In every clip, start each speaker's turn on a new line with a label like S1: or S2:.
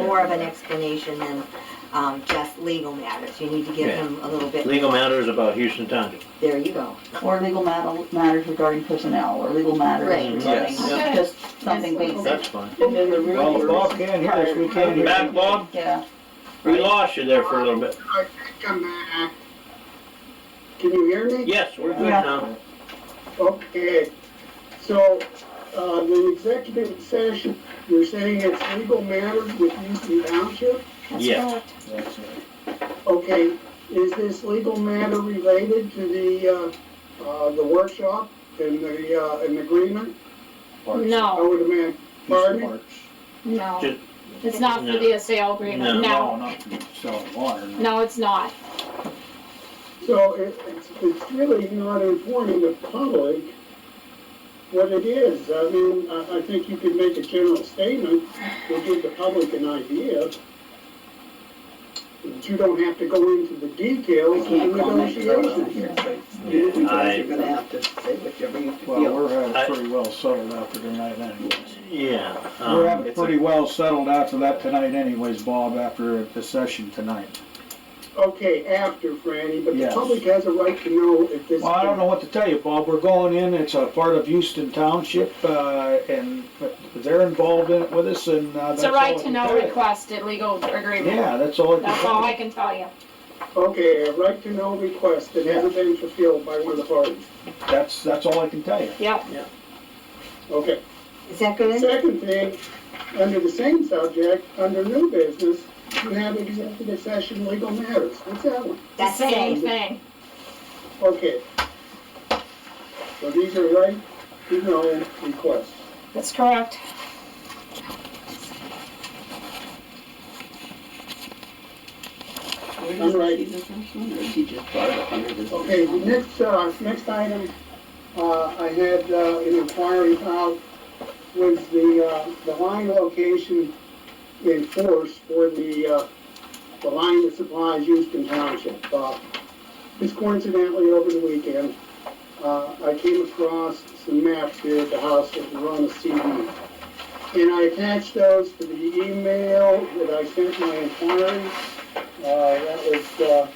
S1: more of an explanation than, um, just legal matters. You need to give
S2: Yeah.
S1: him a little bit,
S2: Legal matters about Houston Township.
S1: there you go.
S3: Or legal matter- matters regarding personnel, or legal matters
S1: Right.
S3: regarding
S4: Yes.
S5: Okay.
S3: just something
S5: Yes.
S3: basic.
S2: That's fine.
S3: And then the real
S4: Well, if Bob
S3: person-
S4: can't hear us, we can't hear
S2: Back,
S4: him.
S2: Bob?
S3: Yeah,
S2: We lost you there for a little bit.
S6: I think I'm back. Can you hear me?
S2: Yes, we're good
S3: Yeah.
S2: now.
S6: Okay, so, uh, the executive session, you're saying it's legal matters with Houston Township?
S2: Yes.
S4: That's right.
S6: Okay, is this legal matter related to the, uh, uh, the workshop and the, uh, and the agreement?
S4: March.
S6: I
S5: No,
S6: would imagine, pardon?
S4: March.
S5: no,
S2: Just-
S5: it's not for the sale agreement,
S4: No,
S5: no,
S4: not for selling water. no.
S5: no, it's not.
S6: So it, it's, it's really not informing the public what it is. I mean, I, I think you could make a general statement, to give the public an idea. But you don't have to go into the
S3: we
S6: details of the
S3: can't comment on
S6: negotiations.
S3: hearsay.
S2: Yeah, I,
S3: You're gonna have to say what you're bringing to
S4: Well,
S3: deal.
S4: we're having
S2: I-
S4: pretty well settled after tonight anyways.
S2: yeah. um,
S4: We're having
S7: it's a-
S4: pretty well settled after that tonight anyways, Bob, after the session tonight.
S6: Okay, after, Franny, but the
S4: Yes.
S6: public has a right to know if this.
S4: Well, I don't know what to tell you, Bob. We're going in, it's a part of Houston Township, uh, and they're involved in it with us and, uh,
S5: It's
S4: that's
S5: a
S4: all.
S5: right
S4: I
S5: to
S4: can
S5: know
S4: tell you.
S5: request at legal agreement,
S4: Yeah, that's all. I can
S5: that's
S4: tell
S5: all
S4: you.
S5: I can tell you.
S6: Okay, a right to know request that hasn't been fulfilled by one of the parties.
S4: That's, that's all I can tell you.
S5: Yep,
S6: Okay.
S1: Is that good?
S6: Second thing, under the same subject, under new business, you have executive session legal matters. What's that one?
S5: the
S1: That's
S5: same
S1: it.
S5: thing.
S6: Okay. So these are right, you know, requests.
S5: That's correct.
S3: Where
S6: I'm
S3: does
S6: right.
S3: he see the first one, or is he just brought it up under this?
S6: Okay, the next, uh, next item, uh, I had, uh, an inquiry about was the, uh, the line location in force for the, uh, the line that supplies Houston Township. Uh, Just coincidentally, over the weekend, uh, I came across some maps here at the house that were on the CD. And I attached those to the email that I sent my inquiry. Uh, that was, uh,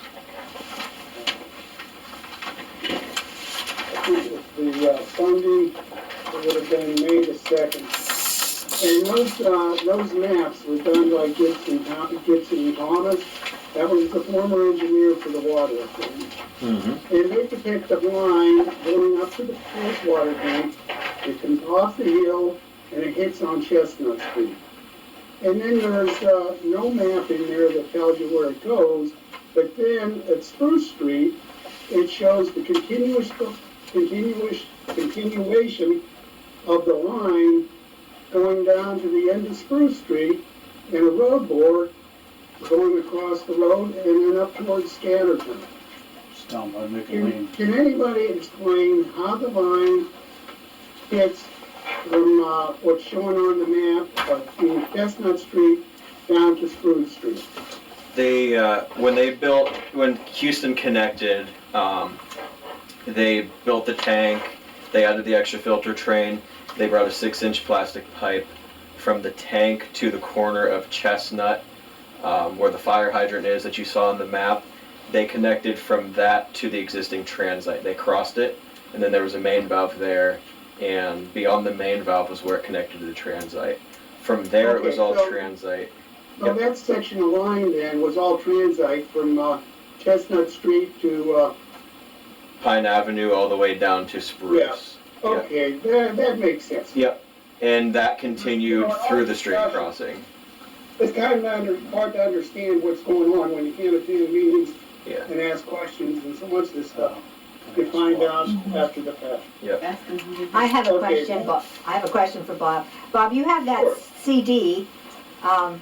S6: I think it was the uh, funding, it would have been May the second. And those, uh, those maps were done by Gibson, Thom- Gibson Thomas. That was the former engineer for the water authority.
S2: Mhm.
S6: And they depict the line going up to the first water tank. It comes off the hill and it hits on Chestnut Street. And then there's, uh, no map in there that tells you where it goes, but then at Spruce Street, it shows the continuous, continuous, continuation of the line going down to the end of Spruce Street and a road bore going across the road and then up towards Scatterton.
S4: Just tell them I'm making
S5: Mm.
S6: Can, can anybody explain how the line gets from, uh, what's shown on the map of the Chestnut Street down to Spruce Street?
S7: They uh, when they built when Houston connected, um, they built the tank. They added the extra filter train. They brought a six-inch plastic pipe from the tank to the corner of Chestnut, um, where the fire hydrant is that you saw on the map. They connected from that to the existing transite. They crossed it, and then there was a main valve there, and beyond the main valve was where it connected to the transite. From there, it was
S6: Okay,
S7: all
S6: so-
S7: transite.
S6: Now, that section of line then was all transite from, uh, Chestnut Street to, uh,
S7: Pine Avenue all the way down to Spruce. Yeah.
S6: okay, that, that makes sense.
S7: Yep. And that continued through the stream crossing.
S6: It's kind of under, hard to understand what's going on when you can't attend meetings
S7: Yeah.
S6: and ask questions and so much of this stuff. You
S4: Good
S6: find out after the fact.
S3: Ask him who did
S1: I have a
S6: Okay.
S1: question, Bob, I have a question for Bob. Bob, you have that
S6: Sure.
S1: CD, um,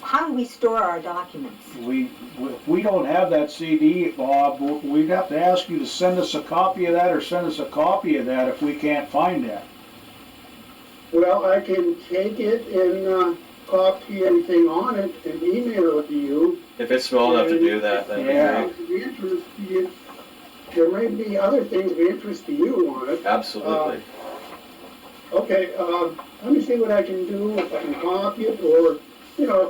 S1: how do we store our documents?
S4: We, we- if we don't have that CD, Bob, we'd have to ask you to send us a copy of that or send us a copy of that if we can't find that.
S6: Well, I can take it and, uh, copy everything on it and email it to you.
S7: If it's small enough to do that, then
S4: Yeah.
S6: If it's of interest to you, there may be other things of interest to you on it. uh,
S7: absolutely.
S6: Okay, um, let me see what I can do, if I can copy it, or, you know,